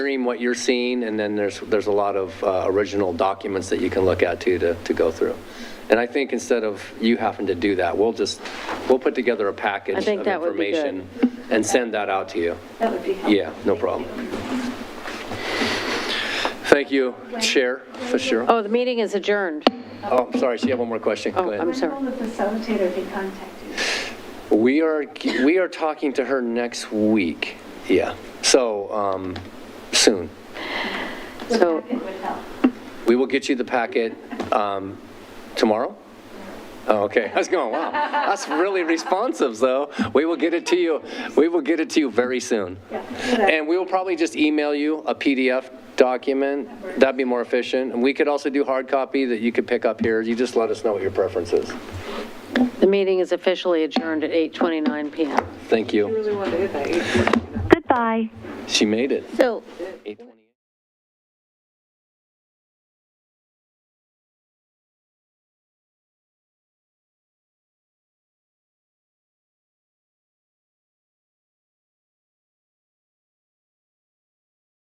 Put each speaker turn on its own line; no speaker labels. Stream what you're seeing, and then there's, there's a lot of uh, original documents that you can look at too, to, to go through. And I think instead of you having to do that, we'll just, we'll put together a package
I
of
think that would be good.
information and send that out to you.
That would be helpful.
Yeah, no problem. Thank you, Chair, for sure.
Oh, the meeting is adjourned.
Oh, I'm sorry, she had one more question. Go
Oh,
ahead.
I'm sorry.
When will the facilitator be contacted?
We are, we are talking to her next week, yeah, so, um, soon.
So,
It would help.
We will get you the packet um, tomorrow? Oh, okay, I was going, wow, that's really responsive, though. We will get it to you, we will get it to you very soon.
Yeah.
And we will probably just email you a PDF document, that'd be more efficient. And we could also do hard copy that you could pick up here, you just let us know what your preference is.
the meeting is officially adjourned at 8:29 PM.
Thank you.
really wanted to hit that 8
Goodbye.
She made it.
So,
8:20.